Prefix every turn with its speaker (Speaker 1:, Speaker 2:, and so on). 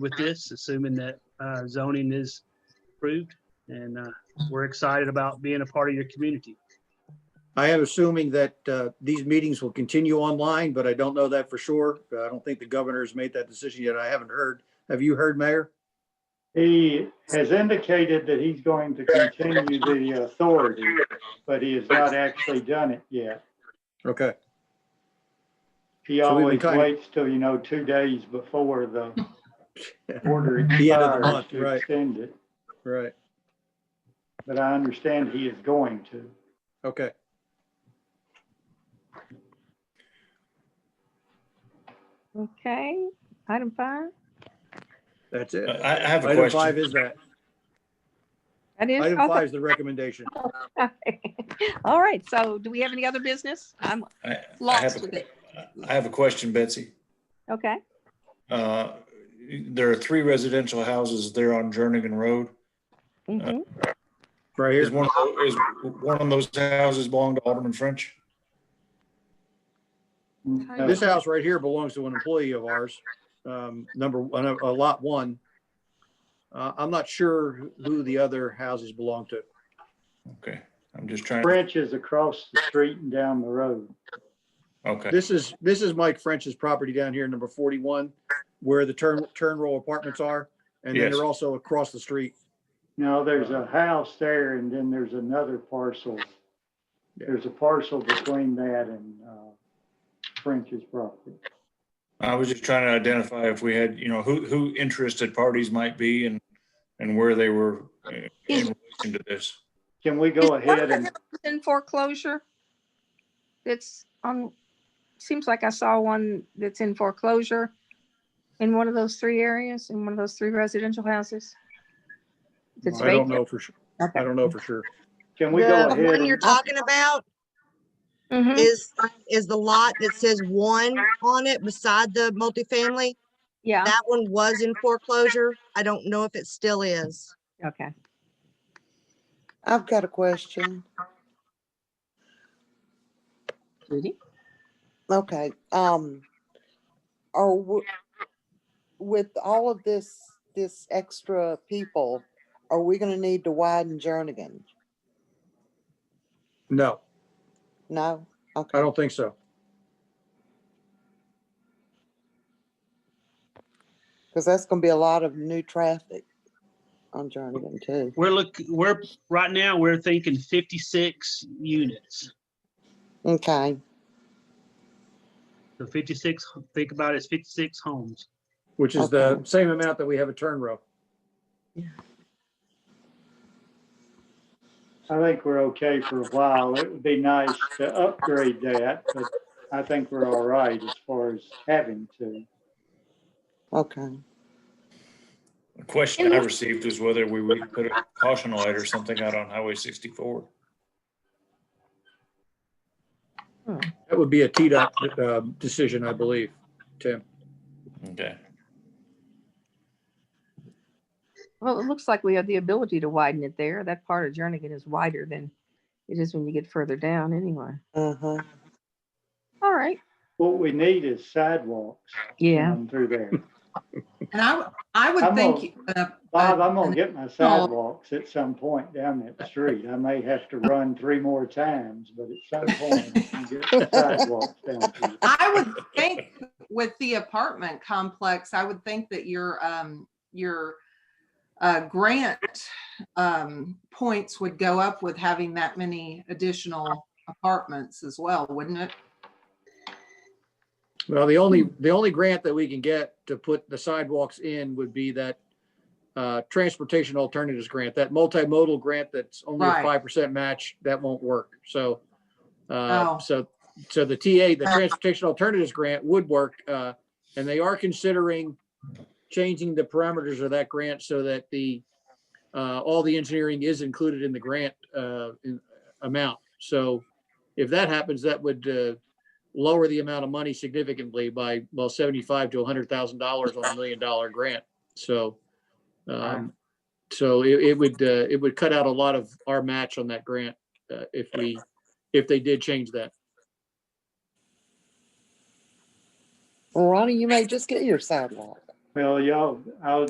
Speaker 1: with this, assuming that uh, zoning is approved. And uh, we're excited about being a part of your community.
Speaker 2: I am assuming that uh, these meetings will continue online, but I don't know that for sure. Uh, I don't think the governor has made that decision yet. I haven't heard. Have you heard, Mayor?
Speaker 3: He has indicated that he's going to continue the authority, but he has not actually done it yet.
Speaker 2: Okay,
Speaker 3: He
Speaker 2: So we've been
Speaker 3: always
Speaker 2: kind of-
Speaker 3: waits till, you know, two days before the order
Speaker 2: The end of the
Speaker 3: expires
Speaker 2: month,
Speaker 3: to
Speaker 2: right.
Speaker 3: extend it.
Speaker 2: right,
Speaker 3: But I understand he is going to.
Speaker 2: okay.
Speaker 4: Okay, item five.
Speaker 2: That's it.
Speaker 5: I Uh, I have a
Speaker 2: Item five
Speaker 5: question.
Speaker 2: is that.
Speaker 4: That is,
Speaker 2: Item
Speaker 4: okay.
Speaker 2: five is the recommendation.
Speaker 4: all right, so do we have any other business? I'm
Speaker 5: I- I
Speaker 4: lost
Speaker 5: have a-
Speaker 4: with it.
Speaker 5: I have a question, Betsy.
Speaker 4: Okay,
Speaker 5: Uh, There are three residential houses there on Jernigan Road.
Speaker 4: mhm.
Speaker 2: Right
Speaker 5: Is
Speaker 2: here.
Speaker 5: one, of tho- is one of those houses belong to Alderman French?
Speaker 3: No,
Speaker 2: This house right here belongs to an employee of ours, um, number, one, uh, lot one. Uh, I'm not sure who the other houses belong to.
Speaker 5: Okay, I'm just trying,
Speaker 3: French is across the street and down the road.
Speaker 5: okay,
Speaker 2: This is, this is Mike French's property down here, number forty-one, where the turn, turn row apartments are. And then
Speaker 5: Yes.
Speaker 2: they're also across the street.
Speaker 3: No, there's a house there and then there's another parcel.
Speaker 2: Yeah.
Speaker 3: There's a parcel between that and uh, French's property.
Speaker 5: I was just trying to identify if we had, you know, who, who interested parties might be and, and where they were uh, in
Speaker 4: Is-
Speaker 5: relation to this.
Speaker 3: Can we
Speaker 4: Is
Speaker 3: go
Speaker 4: one of
Speaker 3: ahead
Speaker 4: the
Speaker 3: and,
Speaker 4: houses In foreclosure? That's on, seems like I saw one that's in foreclosure in one of those three areas, in one of those three residential houses. That's
Speaker 2: I don't
Speaker 4: vacant.
Speaker 2: know for sure. I don't know for sure.
Speaker 3: can we
Speaker 6: The
Speaker 3: go ahead?
Speaker 6: one
Speaker 3: and-
Speaker 6: you're talking about
Speaker 4: Mhm.
Speaker 6: is, is the lot that says one on it beside the multifamily.
Speaker 4: Yeah,
Speaker 6: That one was in foreclosure. I don't know if it still is.
Speaker 4: okay.
Speaker 7: I've got a question.
Speaker 4: Judy?
Speaker 7: Okay, um, are, w- with all of this, this extra people, are we gonna need to widen Jernigan?
Speaker 2: No,
Speaker 7: No?
Speaker 2: I
Speaker 7: Okay,
Speaker 2: don't think so.
Speaker 7: because that's gonna be a lot of new traffic on Jernigan too.
Speaker 1: We're look, we're, right now, we're thinking 56 units.
Speaker 7: Okay,
Speaker 1: So 56, think about it, it's 56 homes.
Speaker 2: Which is the
Speaker 7: Okay.
Speaker 2: same amount that we have a turn row.
Speaker 3: I think we're okay for a while. It would be nice to upgrade that, but I think we're all right as far as having to.
Speaker 7: okay.
Speaker 5: The question I received was whether we would put a caution light or something out on Highway 64.
Speaker 2: That would be a T-Dot, um, decision, I believe, Tim.
Speaker 5: Okay,
Speaker 4: Well, it looks like we have the ability to widen it there. That part of Jernigan is wider than it is when you get further down anyway.
Speaker 7: Uh-huh.
Speaker 4: All right.
Speaker 3: What we need is sidewalks
Speaker 4: Yeah.
Speaker 3: um, through there.
Speaker 8: And I, w- I would
Speaker 3: I'm
Speaker 8: think, uh,
Speaker 3: Bob,
Speaker 8: uh,
Speaker 3: I'm gonna get my sidewalks at some point down that street. I may have to run three more times, but at some point, I'm gonna get the sidewalks down. here.
Speaker 8: I would think with the apartment complex, I would think that your, um, your uh, grant, um, points would go up with having that many additional apartments as well, wouldn't it?
Speaker 2: Well, the only, the only grant that we can get to put the sidewalks in would be that uh, transportation alternatives grant, that multimodal grant that's only a
Speaker 8: Right.
Speaker 2: five percent match, that won't work. So, uh,
Speaker 8: Oh.
Speaker 2: so, so the TA, the transportation alternatives grant would work. uh, And they are considering changing the parameters of that grant so that the, uh, all the engineering is included in the grant uh, in- amount. So if that happens, that would uh, lower the amount of money significantly by, well, seventy-five to hundred thousand dollars on a million dollar grant. So, um, so it, it would, uh, it would cut out a lot of our match on that grant, uh, if we, if they did change that.
Speaker 7: Well, Ronnie, you may just get your sidewalk.
Speaker 3: Well, y'all, I'll